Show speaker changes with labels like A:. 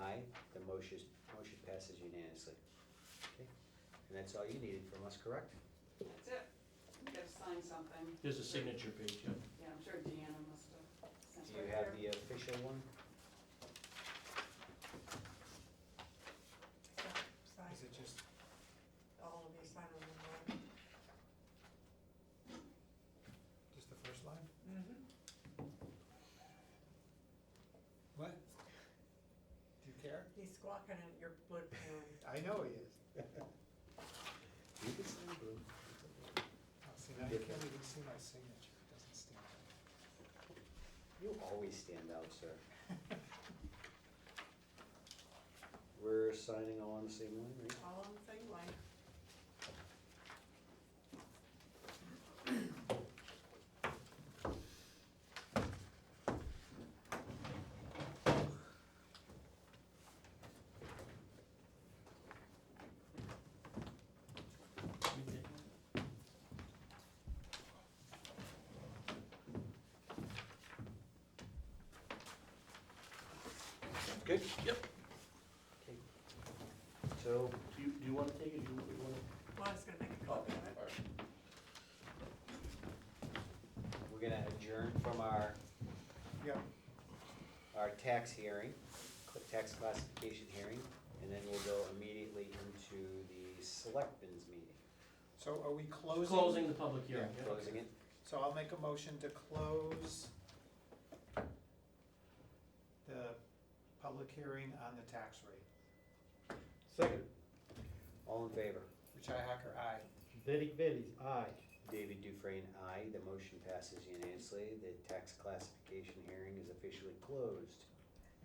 A: Motion passes unanimously. Okay, And that's all you needed from us, correct?
B: That's it. You gotta sign something.
C: There's a signature page, yeah.
B: Yeah, I'm sure Deanna must have sent it
A: Do you have the
B: there.
A: official one?
D: Sign,
E: Is it just,
D: all of you sign on the line.
E: just the first line?
D: Mm-hmm.
E: What? Do you care?
D: He's squawking at your wood panel.
E: I know he is.
A: You can sign, Blue.
E: Oh, See, now you can't even see my signature, it doesn't stand
A: You always stand out, sir.
E: out.
A: We're signing all on the same line, right?
D: All on the same line.
A: Good.
C: Yep.
A: Okay. So,
C: Do you, do you wanna take it, do you wanna?
D: Well, I was gonna make a
C: Oh, all
D: comment.
C: right.
A: we're gonna adjourn from our,
E: Yeah,
A: our tax hearing, cl- tax classification hearing, and then we'll go immediately into the selectmen's meeting.
E: so are we closing?
C: Closing the public hearing, yeah.
A: Closing it?
E: So I'll make a motion to close the public hearing on the tax rate.
A: Second. All in favor?
E: Richi Hacker, aye.
F: Derek Bellis, aye.
A: David Dufresne, aye. The motion passes unanimously. The tax classification hearing is officially closed.